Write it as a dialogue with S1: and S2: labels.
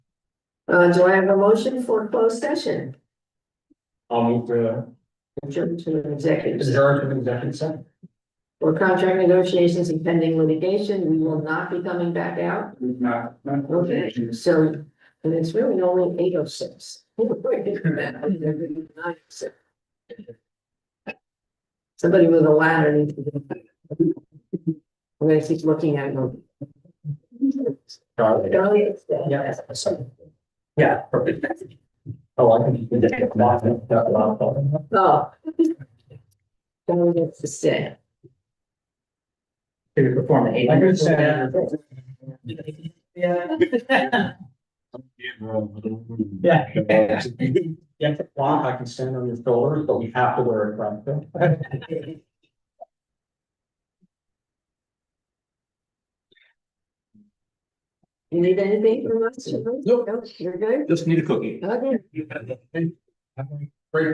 S1: Uh, do I have a motion for closed session?
S2: I'll move to
S1: Adjourn to an executive session
S2: adjourn to executive session.
S1: for contract negotiations and pending litigation. We will not be coming back out.
S2: Not, not.
S1: Okay, so, and it's really only eight oh six. Somebody with a ladder needs to. I'm gonna keep looking at them.
S2: Sorry.
S1: Don't you?
S2: Yeah. sorry. Yeah, perfect. Oh, I can. just get that, that lot of-
S1: Oh. Don't get to say.
S3: To perform an eight
S2: I
S3: hundred.
S2: could say that.
S3: Yeah.
S2: Yeah. Yeah, well, I can stand on your shoulders, but we have to wear a front. coat.
S1: You need anything from us? Charlie?
S2: Nope.
S1: No, You're good?
S2: Just need a cookie.
S1: Okay.
S2: Have a-